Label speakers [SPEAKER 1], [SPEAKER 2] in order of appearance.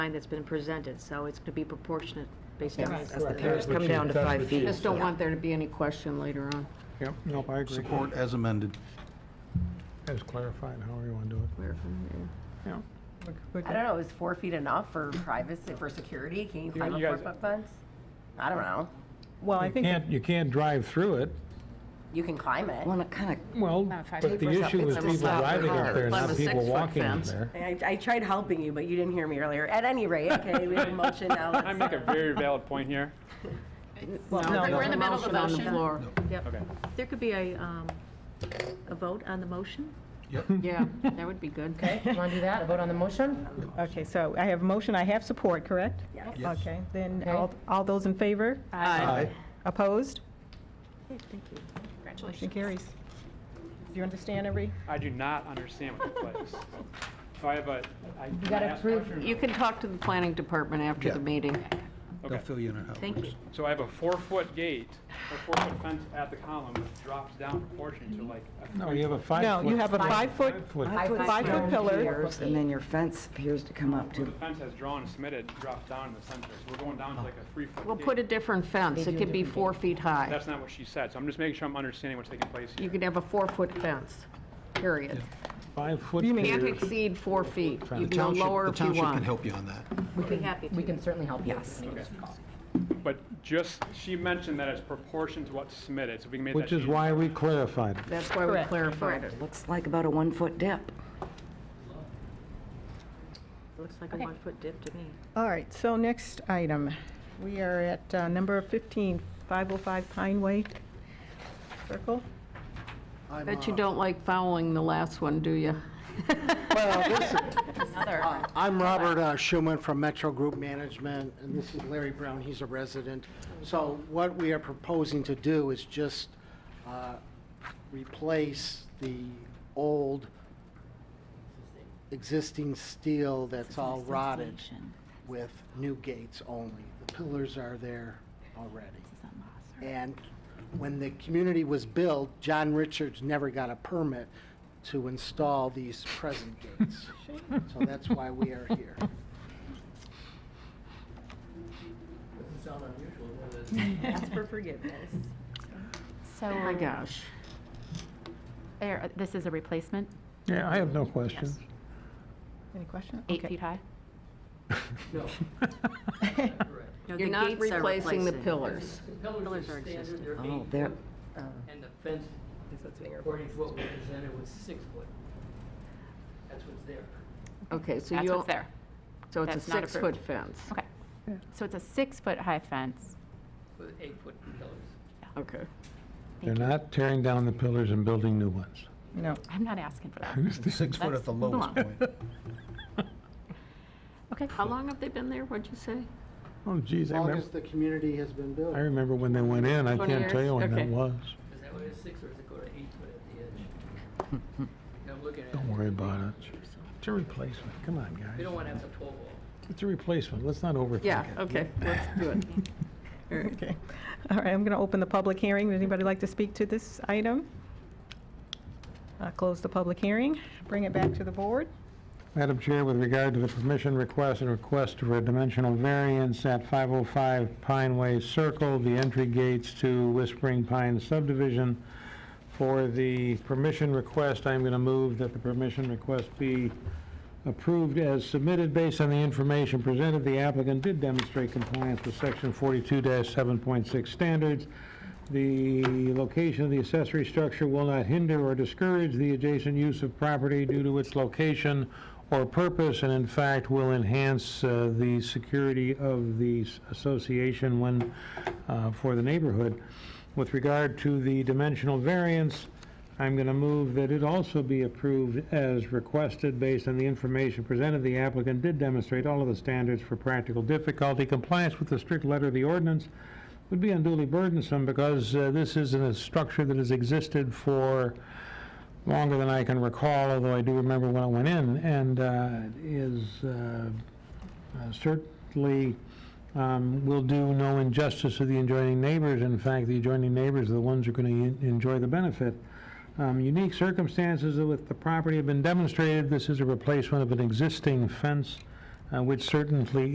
[SPEAKER 1] line that's been presented, so it's to be proportionate based on
[SPEAKER 2] Right.
[SPEAKER 1] as the
[SPEAKER 2] Correct.
[SPEAKER 1] parents
[SPEAKER 2] Parents
[SPEAKER 3] come down to five feet.
[SPEAKER 1] Just don't want there to be any question later on.
[SPEAKER 2] Yep, nope, I agree.
[SPEAKER 4] Support as amended.
[SPEAKER 2] As clarified, however you want to do it. Yeah.
[SPEAKER 5] I don't know, is four feet enough for privacy, for security? Can you climb a
[SPEAKER 2] you guys-
[SPEAKER 5] four-foot fence? I don't know.
[SPEAKER 3] Well, I
[SPEAKER 2] You
[SPEAKER 3] think,
[SPEAKER 2] can't, you can't drive through it.
[SPEAKER 5] You can climb it.
[SPEAKER 3] well, it kind of,
[SPEAKER 2] Well,
[SPEAKER 6] five
[SPEAKER 2] but
[SPEAKER 6] feet
[SPEAKER 2] the
[SPEAKER 6] was up-
[SPEAKER 2] issue
[SPEAKER 6] it's
[SPEAKER 2] is
[SPEAKER 6] a
[SPEAKER 2] people
[SPEAKER 6] solid
[SPEAKER 2] driving up
[SPEAKER 6] car.
[SPEAKER 2] there,
[SPEAKER 1] Climb a
[SPEAKER 2] not people
[SPEAKER 1] six-foot
[SPEAKER 2] walking up
[SPEAKER 1] fence.
[SPEAKER 2] there.
[SPEAKER 5] I, I tried helping you, but you didn't hear me earlier. At any rate, okay, we have a motion now.
[SPEAKER 7] I make a very valid point here.
[SPEAKER 3] no,
[SPEAKER 6] We're in the middle of the
[SPEAKER 1] on the
[SPEAKER 6] motion.
[SPEAKER 1] floor.
[SPEAKER 7] Okay.
[SPEAKER 1] Yep. There could be a, um, a vote on the motion?
[SPEAKER 4] Yep.
[SPEAKER 1] Yeah, that would be good.
[SPEAKER 6] Okay, you want to do that, a vote on the motion?
[SPEAKER 3] okay, so I have motion, I have support, correct?
[SPEAKER 5] Yes.
[SPEAKER 4] Yes.
[SPEAKER 3] Okay, then
[SPEAKER 6] Okay.
[SPEAKER 3] all, all those in favor?
[SPEAKER 4] Aye.
[SPEAKER 3] Opposed?
[SPEAKER 1] Thank you.
[SPEAKER 3] Motion
[SPEAKER 6] Congratulations.
[SPEAKER 3] carries. Do you understand every?
[SPEAKER 7] I do not understand what took place. So I have a, I. You
[SPEAKER 6] gotta prove-
[SPEAKER 1] You can talk to the planning department after the
[SPEAKER 4] Yeah.
[SPEAKER 1] meeting.
[SPEAKER 4] They'll
[SPEAKER 7] Okay,
[SPEAKER 4] fill you in on how it
[SPEAKER 1] Thank
[SPEAKER 4] works.
[SPEAKER 1] you.
[SPEAKER 7] so I have a four-foot gate, a four-foot fence at the column, which drops down proportionally to like. a
[SPEAKER 2] No,
[SPEAKER 7] three-
[SPEAKER 2] you have a five-foot.
[SPEAKER 3] No, you have a five-foot,
[SPEAKER 2] Five-foot.
[SPEAKER 3] five-foot pillar.
[SPEAKER 8] And then your fence appears to come up
[SPEAKER 7] The
[SPEAKER 8] to
[SPEAKER 7] fence has drawn, submitted, drops down in the center, so we're going down to like a three-foot.
[SPEAKER 1] We'll
[SPEAKER 7] gate.
[SPEAKER 1] put a different fence. It could be four feet high.
[SPEAKER 7] That's not what she said, so I'm just making sure I'm understanding what's taking place
[SPEAKER 1] You
[SPEAKER 7] here.
[SPEAKER 1] could have a four-foot fence, period.
[SPEAKER 2] Five-foot.
[SPEAKER 3] You mean-
[SPEAKER 1] Can't
[SPEAKER 2] period.
[SPEAKER 1] exceed four feet. You can
[SPEAKER 4] The
[SPEAKER 1] go
[SPEAKER 4] township-
[SPEAKER 1] lower if you
[SPEAKER 4] The township can
[SPEAKER 1] want.
[SPEAKER 4] help you on that.
[SPEAKER 1] We'd be happy to.
[SPEAKER 6] We can certainly help you. Yes.
[SPEAKER 7] But just, she mentioned that it's proportion to what's submitted, so we can make that
[SPEAKER 2] Which is
[SPEAKER 7] change.
[SPEAKER 2] why we clarified. it.
[SPEAKER 1] That's why we
[SPEAKER 3] Correct.
[SPEAKER 1] clarified it.
[SPEAKER 8] looks like about a one-foot dip.
[SPEAKER 1] Looks like a one-foot dip to me.
[SPEAKER 3] All right, so next item, we are at uh, number 15, 505 Pine Way Circle.
[SPEAKER 1] Bet
[SPEAKER 9] uh,
[SPEAKER 1] you don't like following the last one, do you?
[SPEAKER 9] I'm Robert uh, Schuman from Metro Group Management, and this is Larry Brown, he's a resident. So what we are proposing to do is just uh, replace the old existing steel that's all rotted with new gates only. The pillars are there already. And when the community was built, John Richards never got a permit to install these present gates. So that's why we are here.
[SPEAKER 5] Ask for forgiveness.
[SPEAKER 6] So,
[SPEAKER 1] oh My gosh.
[SPEAKER 6] there- this is a replacement,
[SPEAKER 2] Yeah, I have no questions.
[SPEAKER 3] Any question?
[SPEAKER 6] eight
[SPEAKER 3] Okay.
[SPEAKER 6] feet high?
[SPEAKER 1] You're not replacing the pillars.
[SPEAKER 10] Pillars are Oh. standard, they're
[SPEAKER 8] Oh,
[SPEAKER 10] eight foot, and the fence,
[SPEAKER 5] That's what's being
[SPEAKER 10] according to what we presented, was six foot. That's what's there.
[SPEAKER 1] Okay, so you
[SPEAKER 6] That's what's
[SPEAKER 1] don't,
[SPEAKER 6] there.
[SPEAKER 1] so it's a
[SPEAKER 6] That's not approved.
[SPEAKER 1] six-foot fence.
[SPEAKER 6] Okay. So it's a six-foot-high fence.
[SPEAKER 10] with eight foot pillars.
[SPEAKER 1] Okay.
[SPEAKER 2] They're not tearing down the pillars and building new ones.
[SPEAKER 3] No.
[SPEAKER 6] I'm not asking for that.
[SPEAKER 4] Six foot at the lowest
[SPEAKER 6] Let's
[SPEAKER 4] point.
[SPEAKER 6] Okay.
[SPEAKER 1] How long have they been there, what'd you say?
[SPEAKER 2] Oh, geez,
[SPEAKER 9] As
[SPEAKER 2] I
[SPEAKER 9] long
[SPEAKER 2] remember,
[SPEAKER 9] as the community has been built.
[SPEAKER 2] I remember when they went in. I
[SPEAKER 1] 20
[SPEAKER 2] can't tell
[SPEAKER 1] years?
[SPEAKER 2] you when
[SPEAKER 1] Okay.
[SPEAKER 2] that was.
[SPEAKER 10] Is that what it is, six, or does it go to eight foot at the edge? I'm looking at it.
[SPEAKER 2] Don't worry about it. It's a replacement. Come on,
[SPEAKER 10] We
[SPEAKER 2] guys.
[SPEAKER 10] don't want to have the pole wall.
[SPEAKER 2] It's a replacement. Let's not overthink it.
[SPEAKER 1] Yeah, okay, let's do it.
[SPEAKER 3] Okay. All right, I'm going to open the public hearing. Would anybody like to speak to this item? Uh, Close the public hearing, bring it back to the board.
[SPEAKER 2] Madam Chair, with regard to the permission request and request for a dimensional variance at 505 Pine Way Circle, the entry gates to Whispering Pine subdivision. For the permission request, I'm going to move that the permission request be approved as submitted based on the information presented. The applicant did demonstrate compliance with section 42-7.6 standards. The location of the accessory structure will not hinder or discourage the adjacent use of property due to its location or purpose, and in fact, will enhance uh, the security of the s- association when, uh, for the neighborhood. With regard to the dimensional variance, I'm going to move that it also be approved as requested based on the information presented. The applicant did demonstrate all of the standards for practical difficulty. Compliance with the strict letter of the ordinance would be unduly burdensome because uh, this isn't a structure that has existed for longer than I can recall, although I do remember when it went in, and uh, is uh, uh, certainly um, will do no injustice to the adjoining neighbors. In fact, the adjoining neighbors are the ones who are going to enjoy the benefit. Um, Unique circumstances with the property have been demonstrated. This is a replacement of an existing fence uh, which certainly